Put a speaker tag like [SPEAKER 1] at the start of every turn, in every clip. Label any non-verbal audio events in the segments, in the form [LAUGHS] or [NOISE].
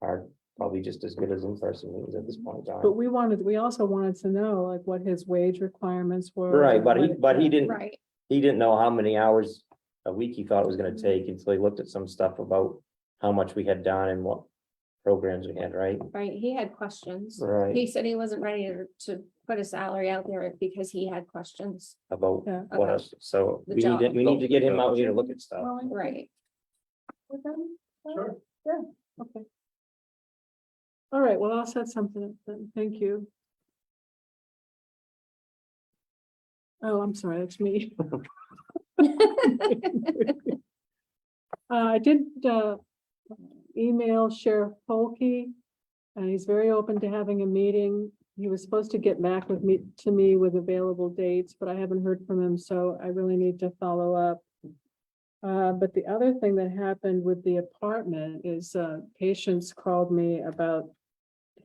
[SPEAKER 1] are probably just as good as in-person meetings at this point in
[SPEAKER 2] But
[SPEAKER 1] time.
[SPEAKER 2] we wanted, we also wanted to know like what his wage requirements were.
[SPEAKER 1] Right, but he,
[SPEAKER 2] what-
[SPEAKER 1] but he didn't,
[SPEAKER 3] Right,
[SPEAKER 1] he didn't know how many hours a week he thought it was gonna take until he looked at some stuff about how much we had done and what programs we had, right?
[SPEAKER 3] right. He had questions.
[SPEAKER 1] Right.
[SPEAKER 3] He said he wasn't ready to- to put a salary out there because he had questions.
[SPEAKER 1] About
[SPEAKER 2] Yeah.
[SPEAKER 1] what else, so
[SPEAKER 3] The
[SPEAKER 1] we need, to-
[SPEAKER 3] job.
[SPEAKER 1] we need to get him out here to look at stuff.
[SPEAKER 3] Right.
[SPEAKER 2] Sure. Yeah, okay. All right, well, I'll set something up then. Thank you. Oh, I'm sorry, that's me. Uh, I did, uh, email Sheriff Polkey. And he's very open to having a meeting. He was supposed to get back with me, to me with available dates, but I haven't heard from him, so I really need to follow up. Uh, but the other thing that happened with the apartment is, uh, patients called me about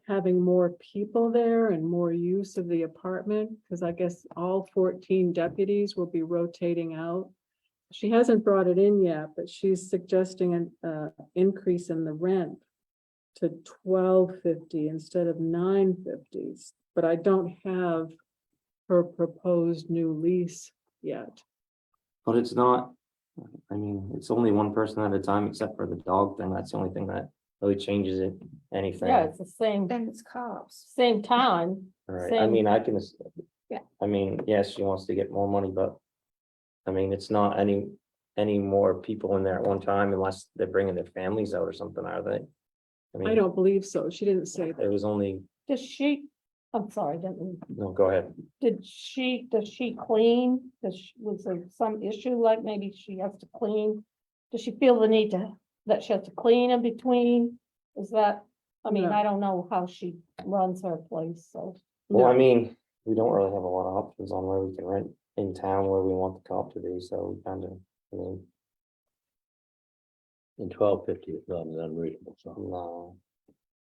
[SPEAKER 2] having more people there and more use of the apartment, because I guess all fourteen deputies will be rotating out. She hasn't brought it in yet, but she's suggesting an, uh, increase in the rent to twelve fifty instead of nine fifties, but I don't have her proposed new lease yet.
[SPEAKER 1] But it's not, I mean, it's only one person at a time, except for the dog thing, that's the only thing that really changes it, anything.
[SPEAKER 4] Yeah, it's the same,
[SPEAKER 3] Then it's cops.
[SPEAKER 4] same time.
[SPEAKER 1] Right, I
[SPEAKER 4] Same.
[SPEAKER 1] mean, I can.
[SPEAKER 3] Yeah.
[SPEAKER 1] I mean, yes, she wants to get more money, but. I mean, it's not any, any more people in there at one time unless they're bringing their families out or something, are they?
[SPEAKER 2] I
[SPEAKER 1] mean,
[SPEAKER 2] don't believe so. She didn't say that.
[SPEAKER 1] It was only,
[SPEAKER 4] Does she, I'm sorry, didn't, mean-
[SPEAKER 1] no, go ahead.
[SPEAKER 4] did she, does she clean? Does, she- was there some issue like maybe she has to clean? Does she feel the need to, that she has to clean in between? Is that, I mean,
[SPEAKER 2] No.
[SPEAKER 4] I don't know how she runs her place, so.
[SPEAKER 1] Well, I
[SPEAKER 2] No.
[SPEAKER 1] mean, we don't really have a lot of options on where we can rent in town where we want the cop to be, so we kind of, I mean,
[SPEAKER 5] And twelve fifty is not an unreasonable sum.
[SPEAKER 1] no.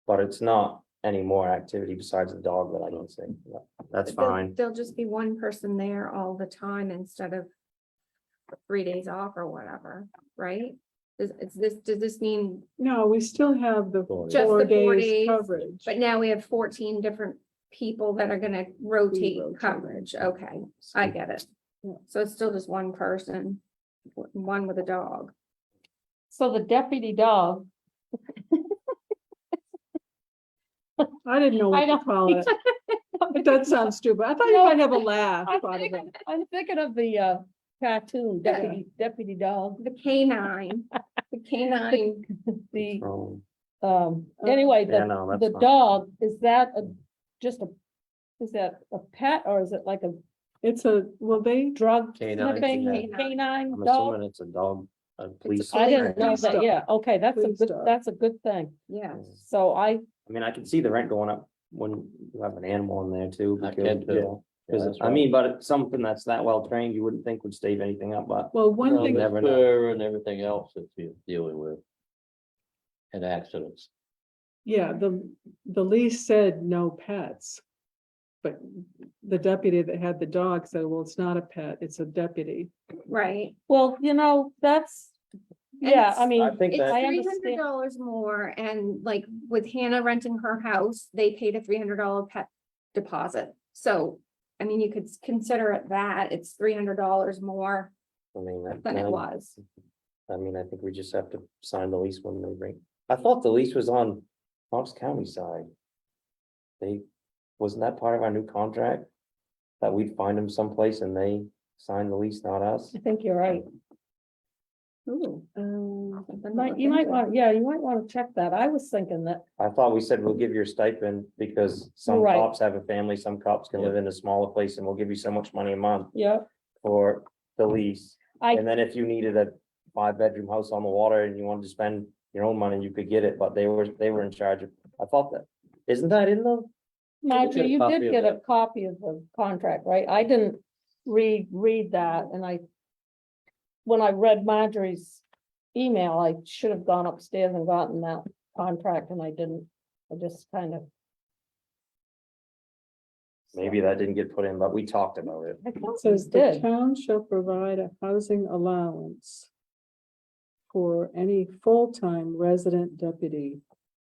[SPEAKER 1] But it's not any more activity besides the dog that I can see. That's
[SPEAKER 3] But there'll-
[SPEAKER 1] fine.
[SPEAKER 3] There'll just be one person there all the time instead of three days off or whatever, right? Is, is this, does this mean,
[SPEAKER 2] No, we still have the
[SPEAKER 5] Four
[SPEAKER 3] Just
[SPEAKER 2] four
[SPEAKER 3] the four
[SPEAKER 2] days
[SPEAKER 3] days,
[SPEAKER 2] coverage.
[SPEAKER 3] but now we have fourteen different people that are gonna rotate
[SPEAKER 2] rotating.
[SPEAKER 3] coverage, okay, I get it.
[SPEAKER 2] Yeah.
[SPEAKER 3] So it's still just one person, w- one with a dog.
[SPEAKER 4] So the deputy dog, [LAUGHS]
[SPEAKER 2] I didn't know what
[SPEAKER 4] I
[SPEAKER 2] to
[SPEAKER 3] [LAUGHS]
[SPEAKER 4] know.
[SPEAKER 2] call it. But that sounds stupid. I thought you
[SPEAKER 4] No.
[SPEAKER 2] might have a laugh
[SPEAKER 4] I'm
[SPEAKER 2] out of
[SPEAKER 4] thinking,
[SPEAKER 2] it.
[SPEAKER 4] I'm thinking of the uh cartoon
[SPEAKER 3] Yeah.
[SPEAKER 4] deputy, deputy dog,
[SPEAKER 3] The canine, the canine,
[SPEAKER 4] the
[SPEAKER 1] Um,
[SPEAKER 4] um,
[SPEAKER 2] Okay.
[SPEAKER 4] anyway,
[SPEAKER 1] Yeah,
[SPEAKER 4] the
[SPEAKER 1] no, that's
[SPEAKER 4] The
[SPEAKER 1] fine. Mm.
[SPEAKER 4] dog, is that a, just a, is that a pet or is it like a
[SPEAKER 2] It's a, well, they,
[SPEAKER 4] drug
[SPEAKER 1] Canine,
[SPEAKER 4] sniffing
[SPEAKER 3] yeah.
[SPEAKER 4] canine
[SPEAKER 1] I'm
[SPEAKER 4] dog?
[SPEAKER 1] assuming it's a dog, a police.
[SPEAKER 4] I didn't know
[SPEAKER 1] dog.
[SPEAKER 2] police
[SPEAKER 4] that,
[SPEAKER 2] dog.
[SPEAKER 4] yeah, okay, that's a
[SPEAKER 2] Police
[SPEAKER 4] good,
[SPEAKER 2] dog.
[SPEAKER 4] that's a good thing.
[SPEAKER 3] yeah.
[SPEAKER 1] I
[SPEAKER 4] So I,
[SPEAKER 1] mean, I can see the rent going up when you have an animal in there too.
[SPEAKER 5] I
[SPEAKER 1] because-
[SPEAKER 5] can too.
[SPEAKER 1] yeah, 'cause
[SPEAKER 5] That's
[SPEAKER 1] I
[SPEAKER 5] right.
[SPEAKER 1] mean, but it's something that's that well trained, you wouldn't think would stave anything up, but
[SPEAKER 2] well, one
[SPEAKER 5] Well,
[SPEAKER 2] thing,
[SPEAKER 1] never
[SPEAKER 5] the
[SPEAKER 1] know.
[SPEAKER 5] fur and everything else that you're dealing with. And accidents.
[SPEAKER 2] yeah, the, the lease said no pets. But the deputy that had the dog said, well, it's not a pet, it's a deputy.
[SPEAKER 3] Right.
[SPEAKER 4] well, you know, that's, yeah, I
[SPEAKER 3] it's-
[SPEAKER 4] mean,
[SPEAKER 1] I think
[SPEAKER 3] It's
[SPEAKER 1] that,
[SPEAKER 4] I
[SPEAKER 3] three
[SPEAKER 4] understand.
[SPEAKER 3] hundred dollars more and like with Hannah renting her house, they paid a three hundred dollar pet deposit. So, I mean, you could s- consider it that, it's three hundred dollars more
[SPEAKER 1] I mean, that,
[SPEAKER 3] than it
[SPEAKER 1] that-
[SPEAKER 3] was.
[SPEAKER 1] I mean, I think we just have to sign the lease when they bring, I thought the lease was on Fox County side. They, wasn't that part of our new contract? That we'd find them someplace and they sign the lease, not us?
[SPEAKER 4] I think you're right.
[SPEAKER 3] Ooh.
[SPEAKER 2] Um,
[SPEAKER 3] something to
[SPEAKER 4] Might,
[SPEAKER 3] look
[SPEAKER 4] you might
[SPEAKER 3] into.
[SPEAKER 4] want, yeah, you might want to check that. I was thinking that,
[SPEAKER 1] I thought we said we'll give you a stipend because some
[SPEAKER 4] Right.
[SPEAKER 1] cops have a family, some cops can live in a smaller place and we'll give you so much money a month
[SPEAKER 4] yeah,
[SPEAKER 1] for the lease.
[SPEAKER 4] I-
[SPEAKER 1] And then if you needed a five bedroom house on the water and you wanted to spend your own money, you could get it, but they were, they were in charge of, I thought that. Isn't that in the,
[SPEAKER 4] Marjorie,
[SPEAKER 5] get a
[SPEAKER 4] you
[SPEAKER 5] copy
[SPEAKER 4] did
[SPEAKER 5] of
[SPEAKER 4] get a
[SPEAKER 5] that.
[SPEAKER 4] copy of the contract, right? I didn't read, read that and I. When I read Marjorie's email, I should have gone upstairs and gotten that contract and I didn't. I just kind of.
[SPEAKER 1] maybe that didn't get put in, but we talked about it.
[SPEAKER 4] I thought
[SPEAKER 2] It
[SPEAKER 4] we
[SPEAKER 2] says the
[SPEAKER 4] did.
[SPEAKER 2] town shall provide a housing allowance for any full-time resident deputy